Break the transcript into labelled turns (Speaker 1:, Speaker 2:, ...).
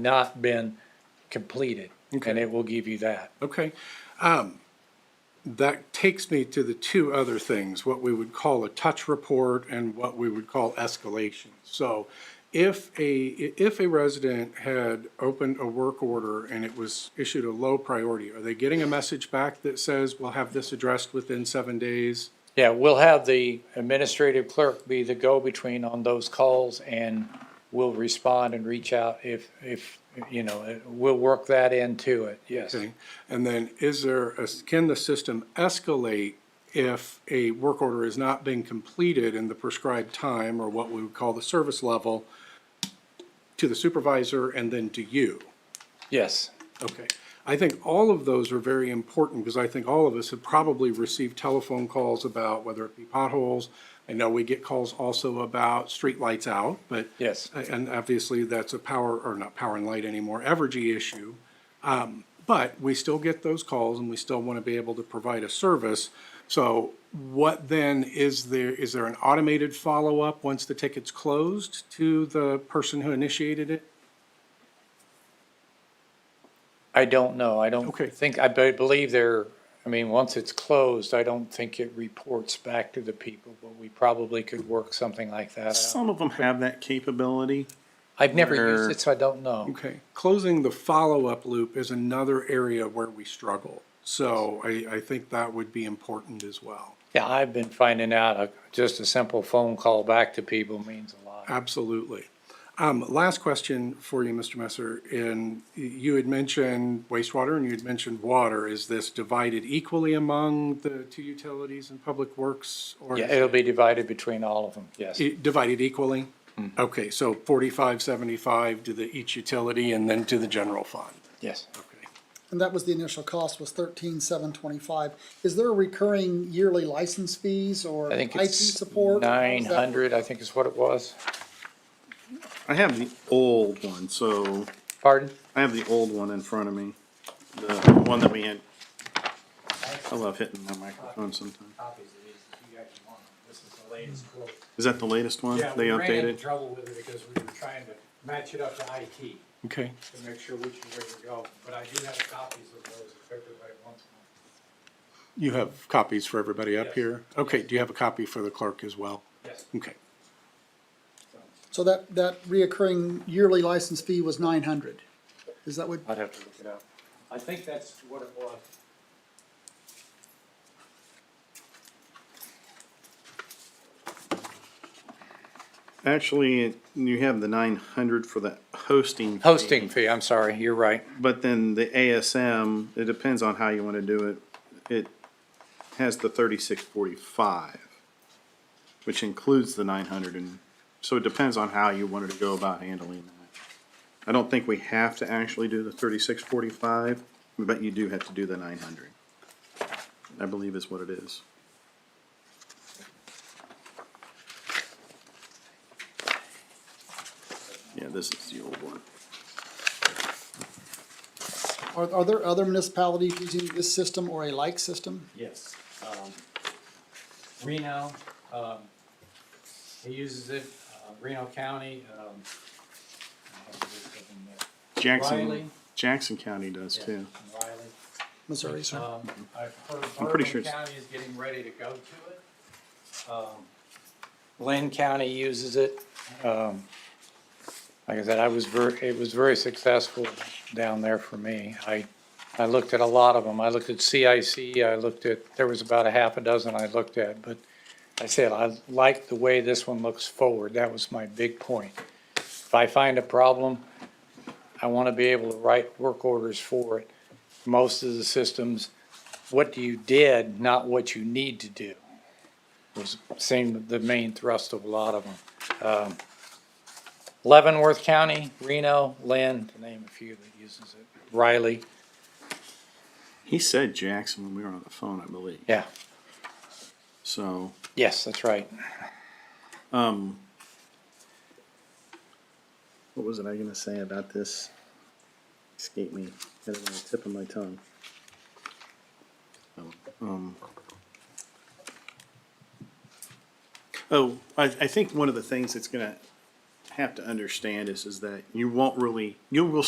Speaker 1: not been completed. And
Speaker 2: Okay.
Speaker 1: it will give you that.
Speaker 2: Okay. Um, That takes me to the two other things, what we would call a touch report and what we would call escalation. So if a, if a resident had opened a work order and it was issued a low priority, are they getting a message back that says, we'll have this addressed within seven days?
Speaker 1: Yeah, we'll have the administrative clerk be the go-between on those calls and we'll respond and reach out if, if, you know, eh, we'll work that into it, yes.
Speaker 2: Okay. And then is there, a- can the system escalate if a work order is not being completed in the prescribed time or what we would call the service level to the supervisor and then to you?
Speaker 1: Yes,
Speaker 2: Okay. I think all of those are very important because I think all of us have probably received telephone calls about whether it be potholes. I know we get calls also about street lights out, but.
Speaker 1: Yes.
Speaker 2: And obviously that's a power, or not power and light anymore, Evergy issue. Um, But we still get those calls and we still want to be able to provide a service. So what then is there, is there an automated follow-up once the ticket's closed to the person who initiated it?
Speaker 1: I don't know, I don't
Speaker 2: Okay.
Speaker 1: think, I be- believe there, I mean, once it's closed, I don't think it reports back to the people, but we probably could work something like that out.
Speaker 3: Some of them have that capability.
Speaker 1: I've never used
Speaker 3: Where-
Speaker 1: it, so I don't know.
Speaker 2: Okay, closing the follow-up loop is another area where we struggle. So I, I think that would be important as well.
Speaker 1: Yeah, I've been finding out, uh, just a simple phone call back to people means a lot.
Speaker 2: Absolutely. Um, last question for you, Mr. Messer, and you had mentioned wastewater and you had mentioned water. Is this divided equally among the two utilities and public works? or
Speaker 1: Yeah,
Speaker 2: is
Speaker 1: it'll be divided between all of them, yes. Mm-hmm.
Speaker 2: it Divided equally? Okay, so forty-five, seventy-five to the each utility and then to the general fund.
Speaker 1: Yes.
Speaker 2: Okay.
Speaker 4: And that was the initial cost was thirteen seven twenty-five. Is there a recurring yearly license fees or
Speaker 1: I think
Speaker 4: IT
Speaker 1: it's
Speaker 4: support? How
Speaker 1: nine
Speaker 4: does that work?
Speaker 1: hundred, I think is what it was.
Speaker 3: I have the old one, so
Speaker 1: Pardon?
Speaker 3: I have the old one in front of me, the one that we had. I love hitting my microphone sometimes.
Speaker 5: copies of these if you guys want. them. This is the latest quote.
Speaker 3: Is that the latest one?
Speaker 5: Yeah,
Speaker 3: They
Speaker 5: we ran into
Speaker 3: updated?
Speaker 5: trouble with it because we were trying to match it up to IT
Speaker 2: Okay.
Speaker 5: to make sure which is where to go. But I do have copies of those if everybody wants one.
Speaker 2: You have copies for everybody up
Speaker 5: Yes.
Speaker 2: here? Okay, do you have a copy for the clerk as well?
Speaker 5: Yes.
Speaker 2: Okay,
Speaker 4: So that, that reoccurring yearly license fee was nine hundred. Is that what,
Speaker 1: I'd have to look it up.
Speaker 5: I think that's what it was.
Speaker 3: Actually, you have the nine hundred for the hosting. fee,
Speaker 1: Hosting fee, I'm sorry, you're right.
Speaker 3: But then the ASM, it depends on how you want to do it. It has the thirty-six forty-five, which includes the nine hundred and, so it depends on how you wanted to go about handling that. I don't think we have to actually do the thirty-six forty-five, but you do have to do the nine hundred. I believe is what it is. Yeah, this is the old one.
Speaker 4: are, are there other municipalities using this system or a like system?
Speaker 5: Yes. Um, Reno, um, he uses it, uh, Reno County, um, I have to look up in there. Riley.
Speaker 3: Jackson, Jackson County does
Speaker 5: Yeah,
Speaker 3: too.
Speaker 5: Riley.
Speaker 4: Missouri, sir?
Speaker 5: Um, I've heard
Speaker 3: I'm pretty
Speaker 5: Bourbon
Speaker 3: sure it's-
Speaker 5: County is getting ready to go to it. Um,
Speaker 1: Lynn County uses it. Um, like I said, I was ver, it was very successful down there for me. I, I looked at a lot of them. I looked at CIC, I looked at, there was about a half a dozen I looked at, but I said, I like the way this one looks forward. That was my big point. If I find a problem, I want to be able to write work orders for it. Most of the systems, what you did, not what you need to do was seemed the main thrust of a lot of them. Um, Leavenworth County, Reno, Lynn, to name a few that uses it, Riley,
Speaker 3: He said Jackson when we were on the phone, I believe.
Speaker 1: yeah,
Speaker 3: So,
Speaker 1: yes, that's right.
Speaker 3: um, what was it I gonna say about this? Escape me. Got it on the tip of my tongue. Um, oh, I, I think one of the things that's gonna have to understand is, is that you won't really, you will